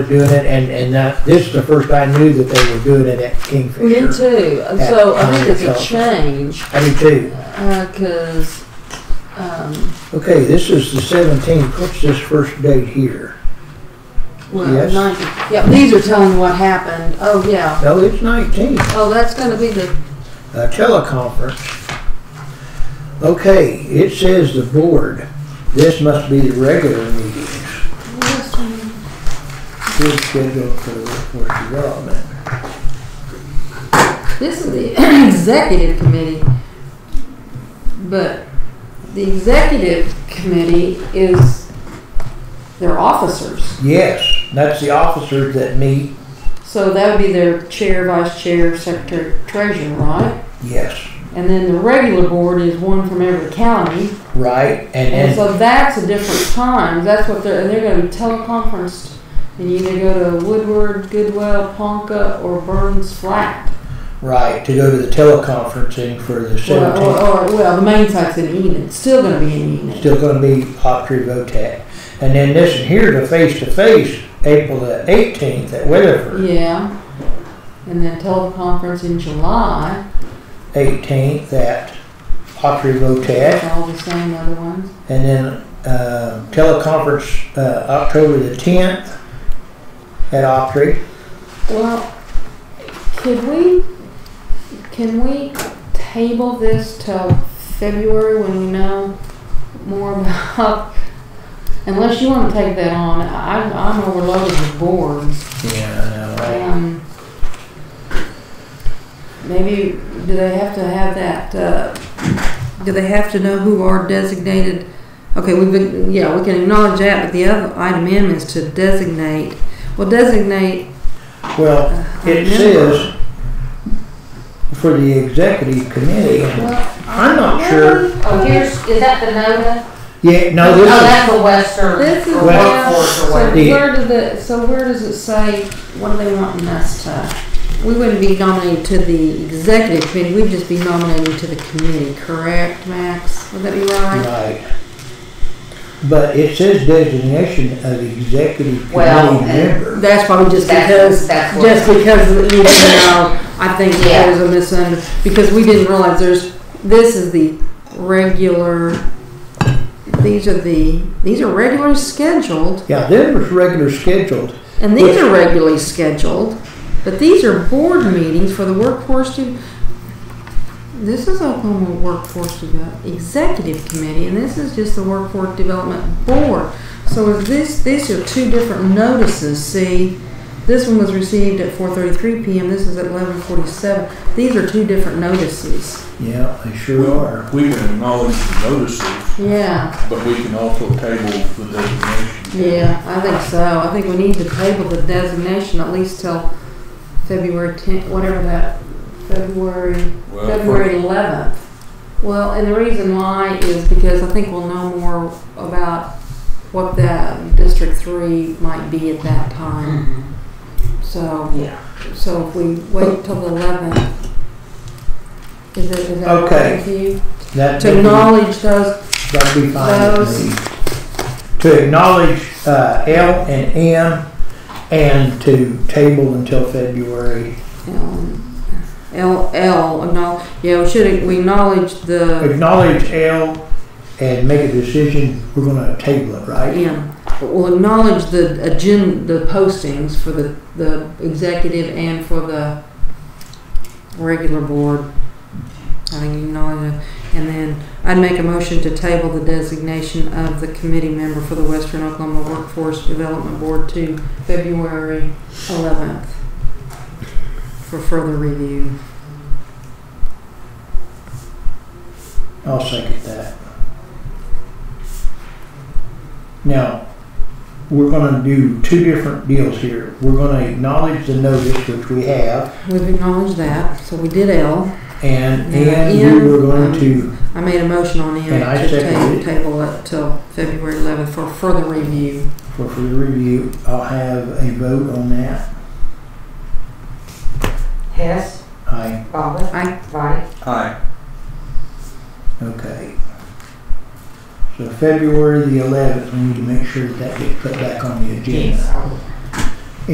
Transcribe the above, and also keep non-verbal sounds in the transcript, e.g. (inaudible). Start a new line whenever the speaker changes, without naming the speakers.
were doing it, and, and that, this is the first I knew that they were doing it at Kingfisher.
Me too. And so I think it's a change
I do too.
because um,
Okay, this is the seventeenth, what's this first date here?
well,
Yes.
90, yeah, these are telling what happened. Oh yeah.
No, it's nineteenth.
Oh, that's going to be the
a teleconference. Okay, it says the board, this must be the regular meetings. Good schedule for workforce development.
This is the (clears throat) executive committee, but the executive committee is their officers.
Yes, that's the officers that meet,
So that would be their chair, vice chair, secretary, treasurer, right?
yes,
And then the regular board is one from every county.
right,
And
and then,
so that's a different time. That's what they're, and they're gonna be teleconferenced. And you either go to Woodward, Goodwell, Ponca, or Burns Flat.
right, to go to the teleconferencing for the
Or, or,
seventeenth.
or, well, the main site's in Enid. It's still gonna be in Enid.
Still gonna be Autry Votek. And then this here, the face-to-face, April the eighteenth at Weatherford.
Yeah. And then teleconference in July,
Eighteenth at Autry Votek.
all the same other ones.
And then uh, teleconference uh, October the 10th at Opry.
Well, could we, can we table this till February when we know more about? Unless you wanna take that on, I, I'm overloaded with boards.
Yeah, I know. right?
Um, Maybe, do they have to have that, uh, do they have to know who are designated? Okay, we've been, yeah, we can acknowledge that, but the other item in is to designate, well, designate uh,
Well,
a
it
member.
says for the executive committee. and- I'm not sure.
Oh, here's, is that the NODA?
Yeah, no,
Oh,
Uh, this
that's the Western.
This is
or
Well,
Workforce
so
or whatever.
the-
where does it, so where does it say, what do they want us to? We wouldn't be nominated to the executive committee, we'd just be nominated to the committee, correct, Max? Would that be
is
right?
right. But it says designation of executive
Well,
committee member.
That's probably just
That's-
because,
that's what-
just because, you know, I think
(laughs) Yeah.
there's a misunderstanding, because we didn't realize there's, this is the regular, these are the, these are regularly scheduled,
Yeah, them was regular scheduled.
And these are regularly scheduled, but these are board meetings for the workforce to, this is Oklahoma Workforce Deve- Executive Committee, and this is just the Workforce Development Board. So is this, these are two different notices, see? This one was received at four thirty-three PM, this is at eleven forty-seven. These are two different notices.
Yeah, they sure are.
We can acknowledge the notices,
Yeah,
but we can also table the designation.
yeah, I think so. I think we need to table the designation at least till February tenth, whatever that, February
Well,
February eleventh. Well, and the reason why is because I think we'll know more about what that District Three might be at that time.
Mhm.
So,
Yeah.
so if we wait till the eleventh, is it, is that
Okay.
okay with you?
That'd
To
be-
acknowledge those,
That'd be fine
Those-
with me. To acknowledge uh, L and M and to table until February.
um, L, L, acknowledge, yeah, we should, we acknowledge the
Acknowledge L and make a decision, we're gonna table it, right?
Yeah, we'll acknowledge the agen, the postings for the, the executive and for the regular board. I think you acknowledge it. And then I'd make a motion to table the designation of the committee member for the Western Oklahoma Workforce Development Board to February eleventh for further review.
I'll second that. Now, we're gonna do two different deals here. We're gonna acknowledge the notice, which we have,
We've acknowledged that, so we did L.
and,
Yeah,
and we were going
and, um,
to
I made a motion on M
And I
to
seconded
ta-
it.
table it till February eleventh for further review.
for further review. I'll have a vote on that.
Hess,
Aye.
Bobbit,
I
Vine,
Aye,
Okay. So February the eleventh, we need to make sure that that gets put back on the
yes.
agenda.
I would.